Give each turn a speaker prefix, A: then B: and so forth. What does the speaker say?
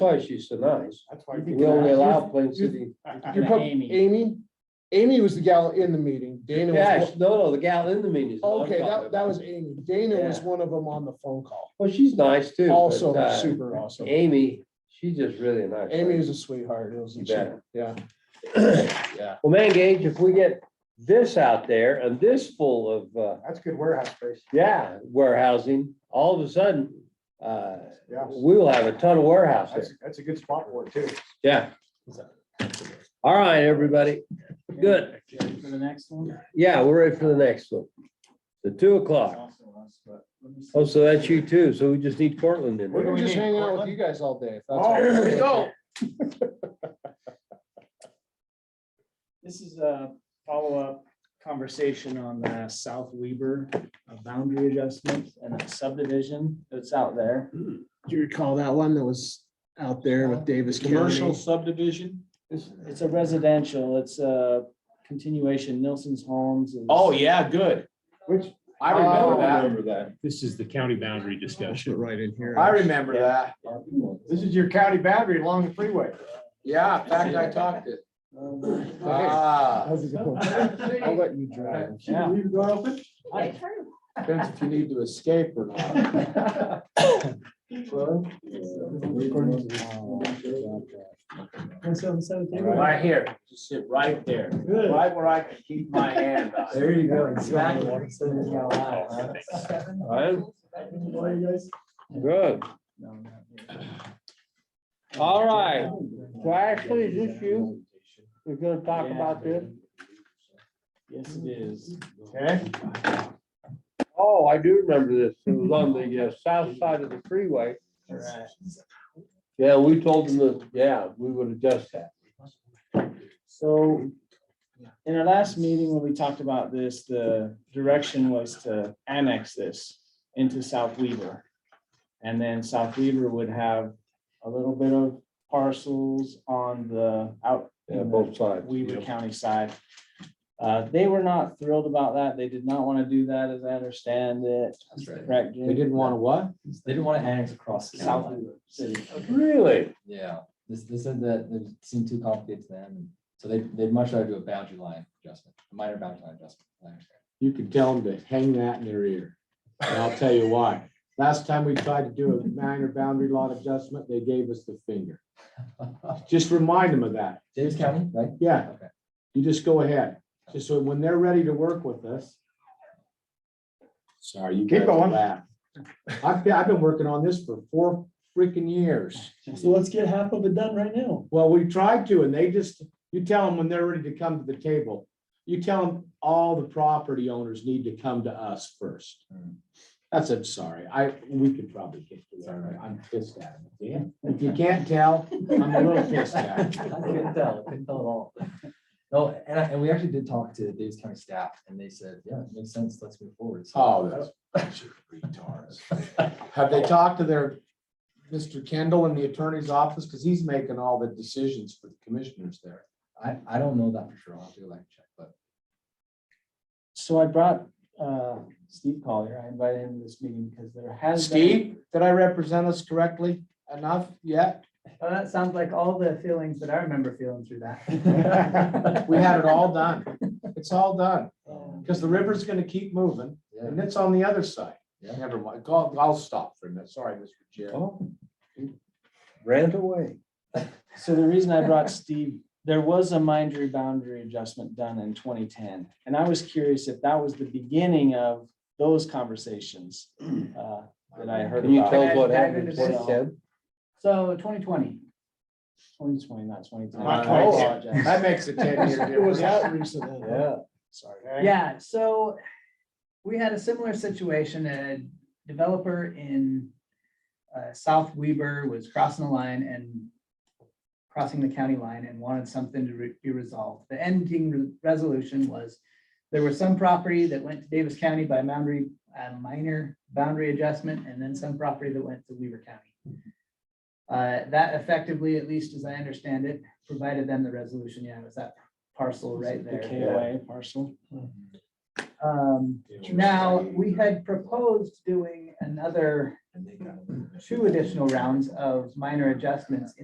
A: why she's so nice.
B: That's why.
A: We only allow Plain City.
C: You
D: And
C: put
D: Amy.
C: Amy, Amy was the gal in the meeting, Dana was,
A: Yes,
C: one-
A: no, no, the gal in the meeting is. the one I'm
C: okay,
A: talking
C: that, that
A: about.
C: was Amy, Dana was
A: Yeah.
C: one of them on the phone call,
A: Well, she's nice too. but,
C: also
A: uh,
C: super awesome.
A: Amy, she's just really a nice.
C: Amy
A: lady.
C: is a sweetheart,
A: You
C: isn't she?
A: bet.
C: Yeah,
A: Well, man, Gage, if we get this out there and this full of, uh,
B: That's good warehouse space.
A: yeah, warehousing, all of a sudden, uh,
B: Yeah.
A: we will have a ton of warehouse there.
B: That's, that's a good spot for it too.
A: Yeah. All right, everybody. Good.
D: Ready For the next one.
A: Yeah, we're ready for the next one. The two o'clock. Oh, so that's you too. So we just need Cortland in
B: What do
C: we're
A: there.
B: we
C: just
B: need,
C: hanging out with
B: Cortland?
C: you guys all day. if that's
B: Oh,
C: all right.
B: here we go.
D: This is a follow-up conversation on the South Weber uh, boundary adjustment and the subdivision that's out there.
C: Do you recall that one that was out there with Davis
E: Commercial
C: County?
E: subdivision?
D: It's it's a residential, it's a continuation, Nelson's Homes. is-
E: Oh, yeah, good.
B: Which,
E: I remember
B: Oh.
E: that.
A: that.
F: This is the county boundary
C: That's
F: discussion.
C: Right in here.
E: I remember that. Oh.
B: this is your county boundary along the freeway.
E: Yeah, in fact, I talked it.
D: Um,
E: Ah,
C: How's it going? I'll let you drive.
D: Yeah.
B: Leave the door open?
G: It's true.
E: depends if you need to escape or not. Right here, just sit right there, right where I can keep my hand on.
D: There you go.
E: Exactly.
D: Exactly.
A: All right, good. All right. So Ashley, is this you? We're gonna talk about this?
D: Yes, it is.
B: Okay.
A: Oh, I do remember this. It was on the uh, south side of the freeway.
D: Right.
A: Yeah, we told them that, yeah, we would adjust that.
D: So in our last meeting, when we talked about this, the direction was to annex this into South Weaver. And then South Weaver would have a little bit of parcels on the out,
A: Yeah, both sides.
D: Weaver County side. Uh, They were not thrilled about that. They did not want to do that, as I understand it. That's right. Correct. Jim?
E: They didn't want to what?
H: They didn't want to annex across the county
D: South
H: line.
D: Weaver City.
A: Really?
H: Yeah, this, this said that it seemed too complicated to them, and so they, they'd much rather do a boundary line adjustment, a minor boundary line adjustment. I understand.
E: You could tell them to hang that in their ear. And I'll tell you why. Last time we tried to do a minor boundary lot adjustment, they gave us the finger. Just remind them of that.
H: Davis County, right?
E: Yeah,
H: Okay.
E: you just go ahead. Just so when they're ready to work with us. Sorry, you.
B: Keep
E: guys
B: going.
E: laugh. I've, been- I've been working on this for four freaking years.
D: So let's get half of it done right now.
E: Well, we tried to and they just, you tell them when they're ready to come to the table. You tell them all the property owners need to come to us first.
H: Hmm.
E: That's, I'm sorry, I, we could probably get to
H: It's all
E: that.
H: right.
E: I'm pissed at them. Yeah, If you can't tell, I'm a little pissed at them.
H: I couldn't tell, I couldn't tell at all. No, and I, and we actually did talk to Davis County staff, and they said, yeah, it makes sense, let's move forward. So-
E: Oh, that's bunch of retards. Have they talked to their, Mr. Kendall in the attorney's office? Because he's making all the decisions for the commissioners there.
H: I, I don't know that for sure, I'll have to go back and check, but
D: So I brought uh, Steve Collier, I invited him to this meeting because there has. been-
E: Steve, did I represent us correctly enough yet?
I: Well, that sounds like all the feelings that I remember feeling through that.
E: We had it all done. It's all done. Because the river's gonna keep moving
H: um, yeah,
E: and it's on the other side.
H: Yeah.
E: Never mind. I'll, I'll stop for a minute. Sorry, Mr. Jim.
A: Oh. Ran away.
D: So the reason I brought Steve, there was a minor boundary adjustment done in twenty ten. And I was curious if that was the beginning of those conversations uh, that I heard
A: Can you tell
D: about.
A: us what happened in twenty ten?
I: So twenty twenty,
D: Twenty twenty, not twenty ten.
E: Not
D: I
E: 2010.
D: apologize.
E: That makes a ten year
C: It was
E: difference.
C: out recently. huh?
A: Yeah.
D: Sorry.
I: yeah, so we had a similar situation, a developer in uh, South Weber was crossing the line and crossing the county line and wanted something to re- be resolved. The ending re- resolution was there was some property that went to Davis County by boundary, uh, minor boundary adjustment, and then some property that went to Weaver County. Uh, that effectively, at least as I understand it, provided them the resolution, yeah, it was that parcel right
D: The
I: there.
D: Hmm. KOA parcel.
I: Um, Now, we had proposed doing another
H: And they got-
I: two additional rounds of minor adjustments